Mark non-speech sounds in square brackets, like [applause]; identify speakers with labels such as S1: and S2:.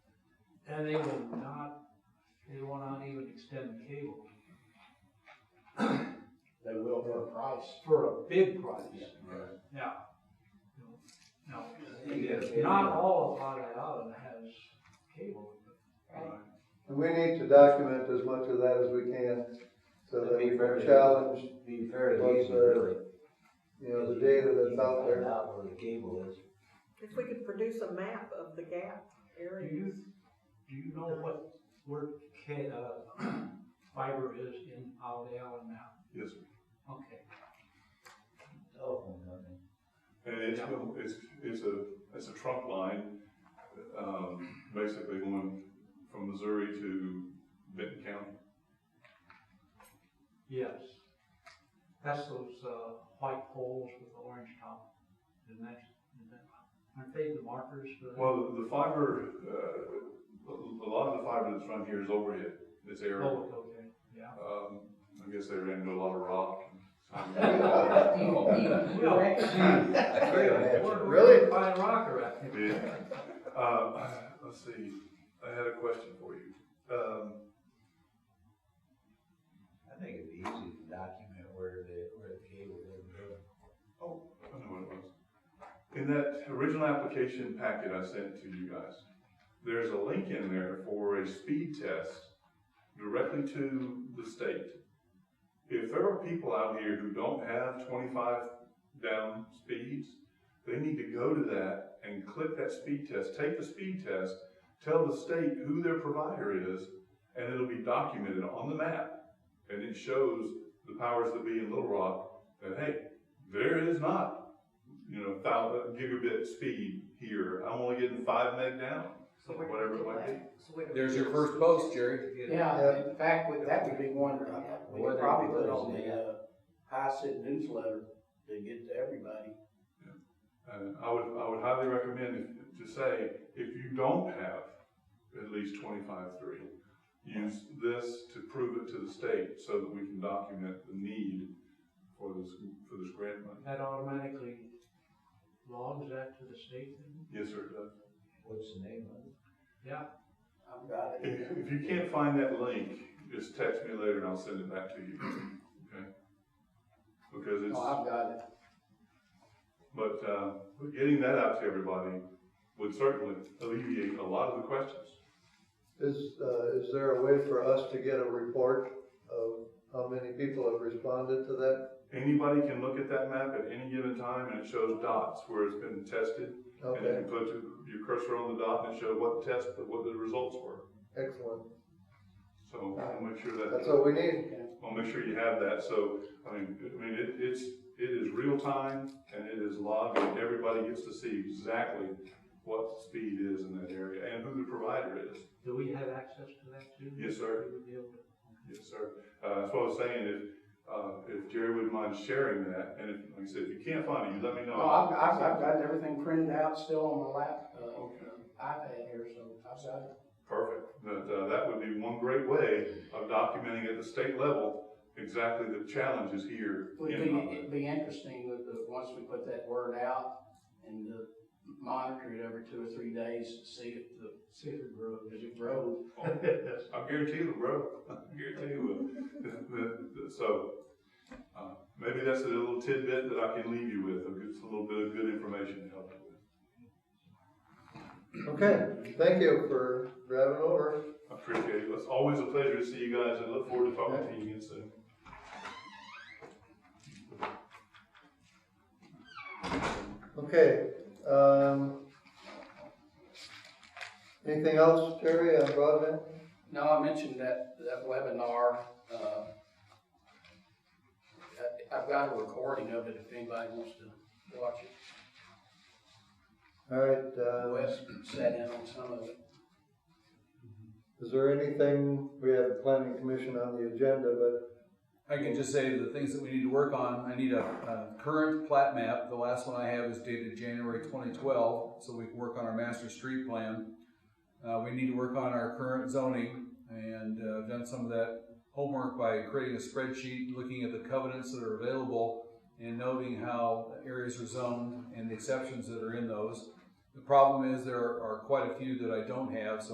S1: And they will not, they will not even extend the cable
S2: They will for a price.
S1: for a big price. Yeah. No, not all of Otter Island has cable. but, uh,
S3: And we need to document as much of that as we can, so that we can challenge,
S4: Be fair to
S3: What's
S4: Hazen,
S3: the-
S4: really.
S3: you know, the data that's out
S5: [laughs]
S4: You can find
S3: there.
S4: Out where the cable is.
S6: If we could produce a map of the gap
S1: Do
S6: area.
S1: you, do you know what, where ca, uh, [clears throat] fiber is in Otter Island now?
S5: Yes,
S1: Okay.
S4: Telephone company.
S5: and it's, it's, it's a, it's a trunk line, um, basically going from Missouri to Benton County.
S1: Yes. That's those, uh, white poles with the orange top. Isn't that, isn't that, aren't they the markers for that?
S5: Well, the fiber, uh, a a lot of the fiber that's run here is overhead, it's aerial.
S1: Oh, okay,
S5: [laughs]
S1: yeah.
S5: Um, I guess they ran into a lot of rock. [laughs]
S1: We're- we're
S3: Really?
S1: Fine rocker, I think.
S5: Yeah. Uh, let's see, I had a question for you. Um,
S4: I think it'd be easy to document where the, where the cable is.
S5: I know what it was. In that original application packet I sent to you guys, there's a link in there for a speed test directly to the state. If there are people out here who don't have twenty-five down speeds, they need to go to that and click that speed test, take the speed test, tell the state who their provider is, and it'll be documented on the map. And it shows the powers that be in Little Rock that, hey, there is not, you know, thousand gigabit speed here. I'm only getting five meg down.
S6: So where do we
S5: Whatever it
S6: get
S5: might be.
S6: that? So where do we
S7: There's your
S6: get
S7: first
S6: this?
S7: post, Jerry.
S2: Yeah, in fact, we- that would be one, uh, we could probably put on the, uh, High City newsletter to get to everybody.
S5: And I would, I would highly recommend if- to say, if you don't have at least twenty-five three, use this to prove it to the state so that we can document the need for this, for this grant money.
S1: That automatically logs that to the state then?
S5: Yes, sir, it does.
S4: What's the name of it?
S1: Yeah,
S2: I've got it.
S5: If, if you can't find that link, just text me later and I'll send it back to you, okay? Because it's.
S2: No, I've got it.
S5: But uh, getting that out to everybody would certainly alleviate a lot of the questions.
S3: Is, uh, is there a way for us to get a report of how many people have responded to that?
S5: Anybody can look at that map at any given time, and it shows dots where it's been tested. And you
S3: Okay,
S5: can put your- your cursor on the dot and show what the test, what the results were.
S3: excellent.
S5: So I'll make sure
S3: That's
S5: that,
S3: what we need.
S5: I'll make sure you have that. So, I mean, I mean, it- it's, it is real time, and it is logged, and everybody gets to see exactly what the speed is in that area and who the provider is.
S1: do we have access to that too?
S5: Yes, sir.
S1: We would be able to-
S5: Yes, sir. Uh, that's what I was saying, if, uh, if Jerry wouldn't mind sharing that, and if, like I said, if you can't find it, you let me know.
S2: No, Oh, I've, I've, I've got everything printed out still on my lap, uh,
S5: Okay,
S2: iPad here, so I've got it.
S5: perfect. That, uh, that would be one great way of documenting at the state level exactly the challenges here.
S2: Would
S5: in
S2: be,
S5: Monterey.
S2: it'd be interesting with the, once we put that word out and uh, monitor it every two or three days, to see if the,
S1: See if it grows.
S2: if it grows.
S5: I guarantee you, bro. [laughs] I guarantee you. [laughs] So, uh, maybe that's a little tidbit that I can leave you with, a good- a little bit of good information to help you with.
S3: Okay, thank you for driving over.
S5: I appreciate it. It's always a pleasure to see you guys and look forward to talking to you again soon.
S3: Okay, um, anything else, Terry, on broadband?
S2: No, I mentioned that, that webinar, uh, I- I've got a recording of it if anybody wants to watch it.
S3: All right, uh,
S2: Wes sat in on some of it.
S3: is there anything, we have the planning commission on the agenda, but
S7: I can just say the things that we need to work on, I need a, a current plat map, the last one I have is dated January twenty twelve, so we can work on our master street plan. Uh, we need to work on our current zoning, and, uh, I've done some of that homework by creating a spreadsheet, looking at the covenants that are available, and noting how areas are zoned and the exceptions that are in those. The problem is, there are quite a few that I don't have, so